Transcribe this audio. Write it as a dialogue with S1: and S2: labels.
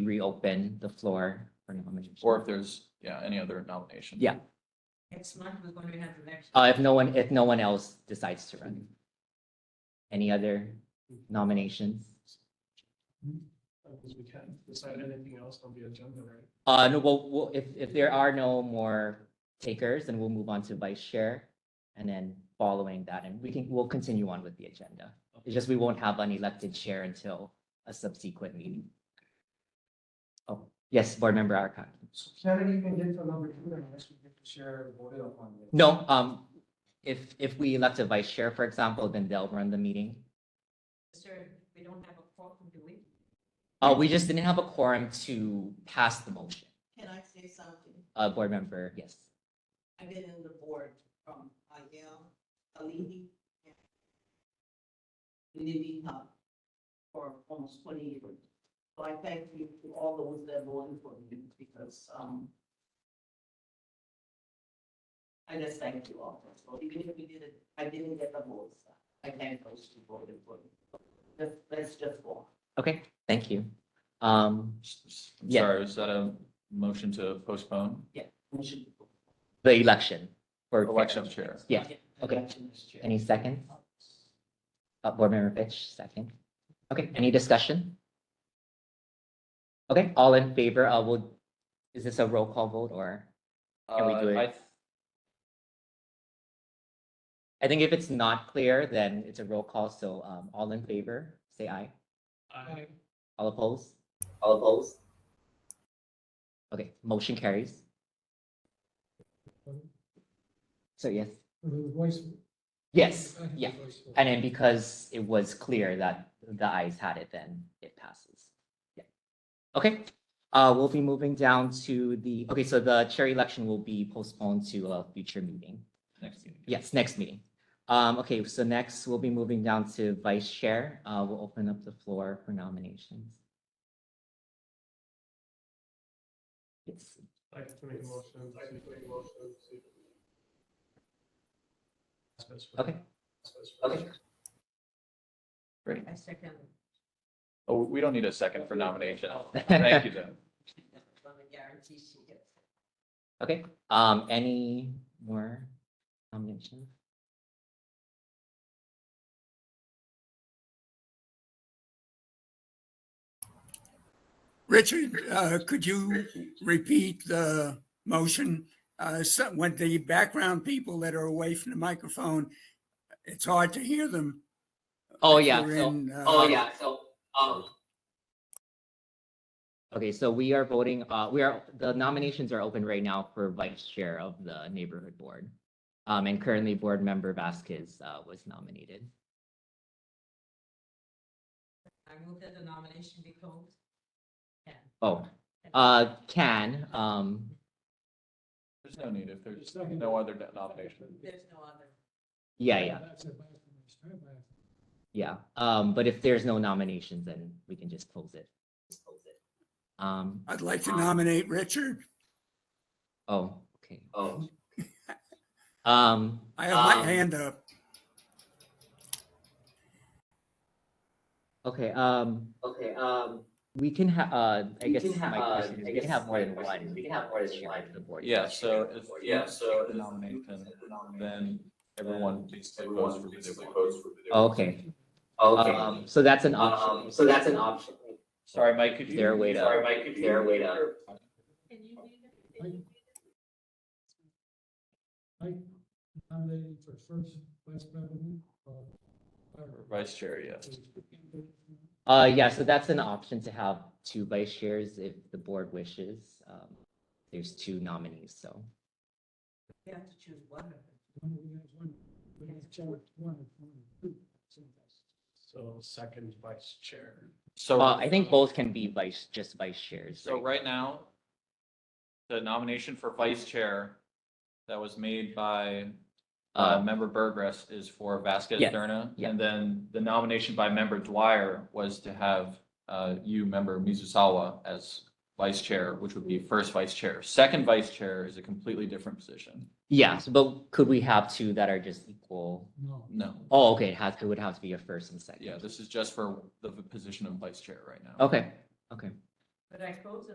S1: we reopen the floor for nominations.
S2: or if there's, yeah, any other nomination.
S1: Yeah,
S3: Next month, we're going to have the next.
S1: uh, if no one, if no one else decides to run. Any other nominations?
S4: Because we can't decide anything else on the agenda, right?
S1: Uh, no, well, well, if, if there are no more takers, then we'll move on to vice chair. And then following that, and we can, we'll continue on with the agenda. It's just we won't have an elected chair until a subsequent meeting. Oh, yes, board member Arakat.
S4: So can it even get to number two unless we get to share voted upon it?
S1: No, um, if, if we elect a vice chair, for example, then they'll run the meeting.
S3: Sir, we don't have a forum, do we?
S1: Uh, we just didn't have a quorum to pass the motion.
S5: Can I say something?
S1: Uh, board member, yes.
S5: I've been in the board from Ayel, Alihi, and Living Hub for almost twenty years. So I thank you to all those that voted for me because, um, I just thank you all. So even if we didn't, I didn't get the votes, I thank those who voted for me. Let's, let's just go.
S1: Okay, thank you. Um,
S2: I'm
S1: Yeah.
S2: Sorry, is that a motion to postpone
S5: We should-
S1: the election for
S2: election of chair?
S1: Yeah, okay. Any second? Uh, Board Member Fitch, second. Okay, any discussion? Okay, all in favor, uh, will, is this a roll call vote or? Can we do
S2: Uh,
S1: it? I think if it's not clear, then it's a roll call, so, um, all in favor, say aye.
S4: I,
S1: All opposed? All opposed. Okay, motion carries. So yes,
S4: the voice.
S1: yes, yeah. And then because it was clear that the eyes had it, then it passes. Yeah. Okay, uh, we'll be moving down to the, okay, so the chair election will be postponed to a future meeting.
S2: Next meeting.
S1: Yes, next meeting. Um, okay, so next we'll be moving down to vice chair. Uh, we'll open up the floor for nominations. Yes,
S4: I have to make a motion. I have to make a motion to-
S1: okay, okay.
S3: I second.
S2: Oh, we don't need a second for nomination.
S1: Oh.
S2: Thank you, Jen.
S3: On the guarantee she gets.
S1: Okay, um, any more nominations?
S6: Richard, uh, could you repeat the motion? Uh, so- When the background people that are away from the microphone, it's hard to hear them.
S1: Oh,
S6: if
S1: yeah,
S6: you're
S1: so,
S6: in, uh,
S1: oh, yeah, so, um. Okay, so we are voting, uh, we are, the nominations are open right now for vice chair of the neighborhood board. Um, and currently board member Vasquez, uh, was nominated.
S3: I move that the nomination be closed.
S1: Oh, uh, can, um,
S2: There's no need if there's no other nomination.
S3: There's no other.
S1: yeah, yeah, yeah. Um, but if there's no nominations, then we can just close it. Um,
S6: I'd like to nominate Richard.
S1: oh, okay. Oh. Um,
S6: I have my
S1: Um,
S6: hand up.
S1: okay, um,
S7: Okay, um,
S1: we can ha- uh, I
S7: We
S1: guess
S7: can ha-
S1: my
S7: uh,
S1: question
S7: I
S1: is, we can
S7: guess
S1: have more
S7: my
S1: than
S7: question
S1: one.
S7: is, we can have more than
S1: chair
S7: one
S1: of the board.
S2: Yeah, so if.
S7: yeah, so.
S2: the Nomination, then everyone basically votes for who they want. Oh,
S1: Okay,
S7: Okay,
S1: um, so that's an
S7: um,
S1: option.
S7: so that's an option.
S2: Sorry, Mike, could you?
S1: There, wait up.
S7: Sorry, Mike, could you? There, wait up.
S3: Can you read it?
S4: Can you I nominated for first vice president.
S2: Vice chair, yes.
S1: Uh, yeah, so that's an option to have two vice chairs if the board wishes. Um, there's two nominees, so.
S3: You have to choose one of them.
S4: So second vice chair.
S2: So.
S1: Uh, I think both can be vice, just vice chairs.
S2: So right now, the nomination for vice chair that was made by uh,
S1: Uh,
S2: member Burgess is for Vasquez
S1: Yeah,
S2: Derna.
S1: yeah.
S2: And then the nomination by member Dwyer was to have uh, you, member Mizusawa, as vice chair, which would be first vice chair. Second vice chair is a completely different position.
S1: Yes, but could we have two that are just equal?
S4: No.
S2: No.
S1: Oh, okay, it has, it would have to be a first and second.
S2: Yeah, this is just for the position of vice chair right now.
S1: Okay, okay.
S3: But I close the